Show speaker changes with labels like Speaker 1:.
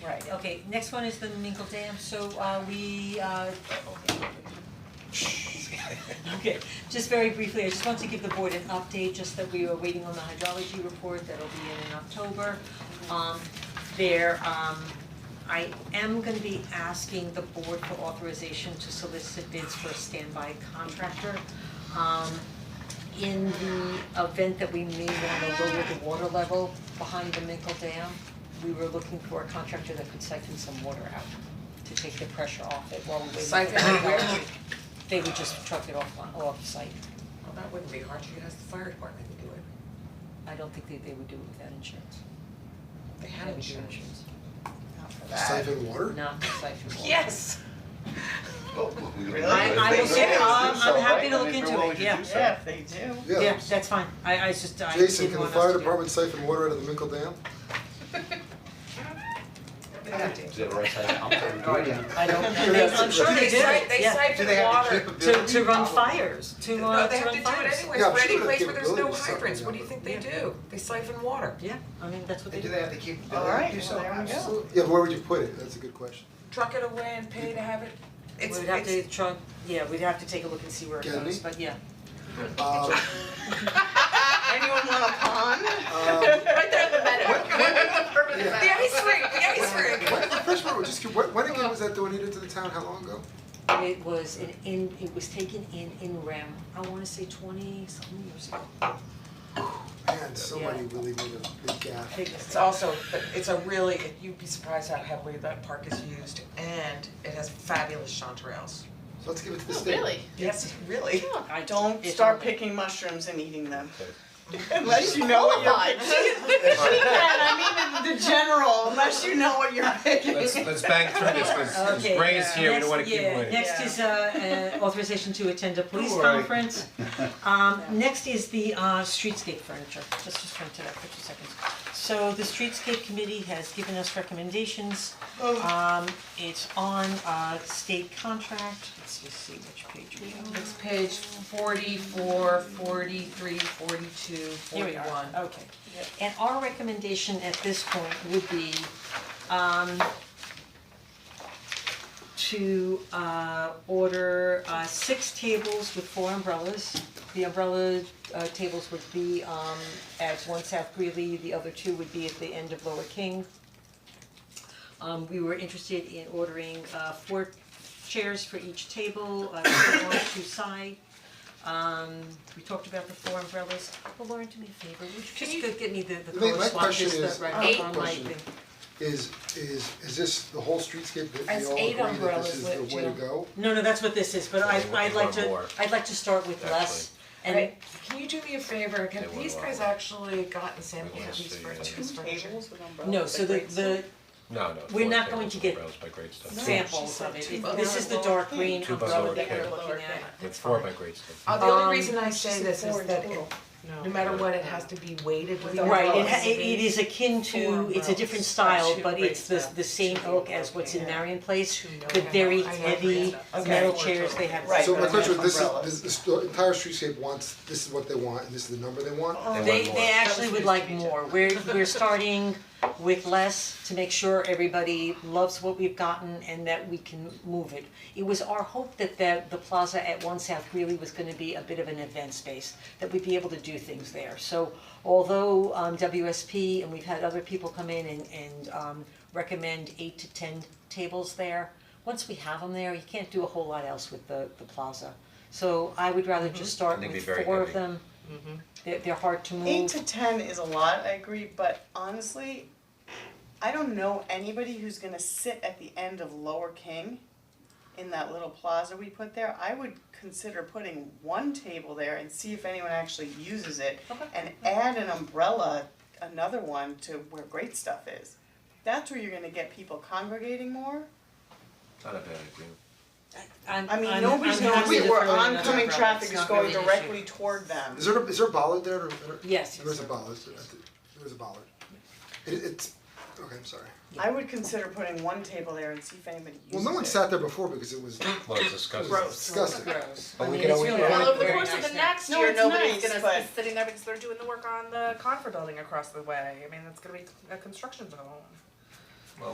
Speaker 1: Right, okay, next one is the Minkle Dam, so uh we uh Okay, just very briefly, I just want to give the board an update, just that we are waiting on the hydrology report, that'll be in in October. Um there um I am gonna be asking the board for authorization to solicit bids for a standby contractor. Um in the event that we may wanna lower the water level behind the Minkle Dam, we were looking for a contractor that could siphon some water out to take the pressure off it while we wait for the
Speaker 2: Siphon it where?
Speaker 1: hydrology. They would just truck it off on, off site.
Speaker 2: Well, that wouldn't be hard, you could ask the fire department to do it.
Speaker 1: I don't think they they would do it without insurance.
Speaker 2: They had
Speaker 1: They would do
Speaker 2: insurance.
Speaker 1: Not for that,
Speaker 3: Siphon water?
Speaker 1: not for siphon water.
Speaker 2: Yes.
Speaker 4: Oh,
Speaker 5: Really?
Speaker 1: I I will say,
Speaker 5: Yeah,
Speaker 1: um,
Speaker 5: it's so,
Speaker 1: I'm happy
Speaker 5: right? I
Speaker 1: to look
Speaker 5: mean, if
Speaker 1: into
Speaker 5: they're willing
Speaker 1: it,
Speaker 5: to
Speaker 1: yeah,
Speaker 5: do so.
Speaker 6: Yeah, if they do.
Speaker 1: yeah, that's fine, I I just, I
Speaker 3: Jason,
Speaker 1: didn't
Speaker 3: can the
Speaker 1: want us
Speaker 3: fire
Speaker 1: to do it.
Speaker 3: department siphon water out of the Minkle Dam?
Speaker 2: They have to.
Speaker 5: Is that the right side of the pump?
Speaker 2: No idea.
Speaker 1: I don't, they, I'm sure they
Speaker 2: They
Speaker 1: do,
Speaker 2: si- they
Speaker 1: yeah,
Speaker 2: siphon water.
Speaker 1: to to run fires, to
Speaker 2: No,
Speaker 1: uh,
Speaker 2: they
Speaker 1: to
Speaker 2: have
Speaker 1: run
Speaker 2: to do it
Speaker 1: fires.
Speaker 2: anyways, for
Speaker 3: Yeah, I'm
Speaker 2: any
Speaker 3: sure the
Speaker 2: place where there's no
Speaker 3: capability is something
Speaker 2: hydrants, what do you
Speaker 3: different.
Speaker 2: think they do? They siphon water.
Speaker 1: Yeah, I mean, that's what they
Speaker 7: And
Speaker 1: do.
Speaker 7: do they have the capability
Speaker 6: All right,
Speaker 7: to do so?
Speaker 6: well, there we go.
Speaker 7: Absolutely.
Speaker 3: Yeah, but where would you put it? That's a good question.
Speaker 2: Truck it away and pay to have it, it's,
Speaker 1: We'd have to
Speaker 2: it's,
Speaker 1: try, yeah, we'd have to take a look and see where it
Speaker 3: Can
Speaker 1: goes,
Speaker 3: we?
Speaker 1: but yeah.
Speaker 3: Um,
Speaker 6: Anyone want a pond?
Speaker 3: um,
Speaker 2: right there in the meadow. The
Speaker 3: yeah.
Speaker 2: ice rink, the ice rink.
Speaker 3: When, first of all, just, keep- when, when again was that donated to the town? How long ago?
Speaker 1: It was an in, it was taken in in rem, I wanna say twenty something years ago.
Speaker 3: Man, somebody really made a big gaffe.
Speaker 1: Big
Speaker 2: It's
Speaker 1: mistake.
Speaker 2: also, but it's a really, you'd be surprised how heavily that park is used and it has fabulous chanterelles.
Speaker 3: So let's give it to
Speaker 1: Oh,
Speaker 3: the state.
Speaker 2: Yes, really.
Speaker 1: I
Speaker 6: Don't
Speaker 1: it's
Speaker 6: start
Speaker 1: on-
Speaker 6: picking mushrooms and eating them. Unless you know what you're picking. I mean, in the general, unless you know what you're picking.
Speaker 4: Let's let's bang through this, cause
Speaker 1: Okay,
Speaker 4: since Ray is here, we don't wanna keep waiting.
Speaker 1: Next, yeah, next is uh uh authorization to attend a police
Speaker 3: Don't worry.
Speaker 1: conference. Um next is the uh streetscape furniture, let's just turn to that for two seconds. So the streetscape committee has given us recommendations. Um it's on uh state contract, let's just see which page we have.
Speaker 2: It's page forty-four, forty-three, forty-two,
Speaker 1: Here
Speaker 2: forty-one.
Speaker 1: we are, okay. And our recommendation at this point would be um to uh order uh six tables with four umbrellas. The umbrella uh tables would be um at one South Greeley, the other two would be at the end of Lower King. Um we were interested in ordering uh four chairs for each table, uh two on two side. Um we talked about the four umbrellas, well Lauren, do me a favor, would you just go get me the the
Speaker 3: My-
Speaker 1: color
Speaker 3: my question
Speaker 1: swatches
Speaker 3: is-
Speaker 1: that right
Speaker 3: I have a
Speaker 1: on my
Speaker 3: question.
Speaker 1: thing?
Speaker 3: Is, is, is this the whole streetscape that we
Speaker 1: As
Speaker 3: all
Speaker 1: eight
Speaker 3: agree that
Speaker 1: umbrellas
Speaker 3: this is
Speaker 1: with
Speaker 3: the way to
Speaker 1: Jill.
Speaker 3: go?
Speaker 1: No, no, that's what this is, but I
Speaker 4: Yeah,
Speaker 1: I'd like
Speaker 4: one
Speaker 1: to,
Speaker 4: more,
Speaker 1: I'd like to start with less and
Speaker 2: Right, can you do me a favor,
Speaker 4: They
Speaker 2: have
Speaker 4: went
Speaker 2: these
Speaker 4: wrong.
Speaker 2: guys actually gotten samples
Speaker 4: wanna
Speaker 2: of these
Speaker 4: see,
Speaker 2: for
Speaker 4: uh,
Speaker 2: two furniture?
Speaker 1: no, so the the
Speaker 4: No, no.
Speaker 1: We're
Speaker 4: four
Speaker 1: not going
Speaker 4: tables
Speaker 1: to
Speaker 4: with
Speaker 1: get
Speaker 4: umbrellas by great stuff.
Speaker 1: samples
Speaker 2: said
Speaker 1: of it,
Speaker 2: two
Speaker 1: It-
Speaker 2: by
Speaker 1: this is the
Speaker 2: lower
Speaker 1: dark green
Speaker 4: Two by
Speaker 1: umbrella
Speaker 4: lower
Speaker 1: that we're
Speaker 4: cable.
Speaker 1: looking at.
Speaker 4: With four by great stuff.
Speaker 2: Uh, the only
Speaker 1: Um,
Speaker 2: reason I say this is that it, no matter what, it has to be weighted with the
Speaker 1: Right, it
Speaker 2: umbrellas.
Speaker 1: ha- it it is akin
Speaker 2: Four
Speaker 1: to, it's a different
Speaker 2: umbrellas.
Speaker 1: style,
Speaker 2: Should
Speaker 1: but
Speaker 2: break
Speaker 1: it's the
Speaker 2: that
Speaker 1: the same
Speaker 2: to
Speaker 1: oak
Speaker 2: the
Speaker 1: as what's in
Speaker 2: location.
Speaker 1: Marion Place,
Speaker 2: To
Speaker 1: the
Speaker 2: know
Speaker 1: very
Speaker 2: how- I know
Speaker 1: heavy
Speaker 2: that. Okay.
Speaker 1: metal
Speaker 2: Four
Speaker 1: chairs they
Speaker 2: totals.
Speaker 1: have.
Speaker 6: Right.
Speaker 3: So my
Speaker 6: but
Speaker 3: question,
Speaker 6: that's
Speaker 3: this is,
Speaker 6: umbrellas.
Speaker 3: this, this sto- entire streetscape wants, this is what they want, and this is the number they want?
Speaker 4: want
Speaker 1: They
Speaker 4: more.
Speaker 1: they actually would
Speaker 2: That was
Speaker 1: like
Speaker 2: news to me,
Speaker 1: more, we're we're starting with less to make sure everybody loves what we've gotten and that we can move it. It was our hope that the the plaza at One South really was gonna be a bit of an event space, that we'd be able to do things there. So although um WSP and we've had other people come in and and um recommend eight to ten tables there, once we have them there, you can't do a whole lot else with the the plaza. So I would
Speaker 4: Mm-hmm.
Speaker 1: rather just start
Speaker 4: And they'd be
Speaker 1: with
Speaker 4: very
Speaker 1: four of
Speaker 4: heavy.
Speaker 1: them they're they're hard to move.
Speaker 6: Eight to ten is a lot, I agree, but honestly, I don't know anybody who's gonna sit at the end of Lower King in that little plaza we put there. I would consider putting one table there and see if anyone actually uses it.
Speaker 1: Okay.
Speaker 6: And add an umbrella, another one to where great stuff is. That's where you're gonna get people congregating more.
Speaker 4: Not a bad agreement.
Speaker 1: I'm
Speaker 6: I mean,
Speaker 1: I'm-
Speaker 6: nobody's
Speaker 1: I'm
Speaker 6: gonna
Speaker 1: happy
Speaker 6: see
Speaker 1: to
Speaker 6: where
Speaker 1: throw in another
Speaker 6: oncoming
Speaker 1: umbrella.
Speaker 6: traffic
Speaker 1: It's
Speaker 6: is
Speaker 1: not
Speaker 6: going
Speaker 1: really an
Speaker 6: directly
Speaker 1: issue.
Speaker 6: toward them.
Speaker 3: Is there, a- is there a bollard there? or- or-
Speaker 1: Yes,
Speaker 3: There is a
Speaker 1: yes.
Speaker 3: bollard, there is a bollard. It, it's, okay, I'm sorry.
Speaker 6: I would consider putting one table there and see if anybody uses it.
Speaker 3: Well, no one sat there before because it was
Speaker 4: Let's discuss this.
Speaker 6: Gross.
Speaker 3: disgusting.
Speaker 1: Gross.
Speaker 4: But
Speaker 1: I
Speaker 4: we
Speaker 1: mean,
Speaker 4: can
Speaker 1: it's
Speaker 4: always
Speaker 1: really
Speaker 4: go
Speaker 1: not
Speaker 4: on
Speaker 7: Well, over the
Speaker 1: very
Speaker 7: course of
Speaker 1: nice
Speaker 7: the
Speaker 1: now.
Speaker 7: next
Speaker 6: No,
Speaker 7: year,
Speaker 6: it's nice,
Speaker 7: nobody's gonna be
Speaker 6: but-
Speaker 2: uh,
Speaker 7: sitting there because they're doing the work on the Confer building across the way. I mean, that's gonna be a construction zone.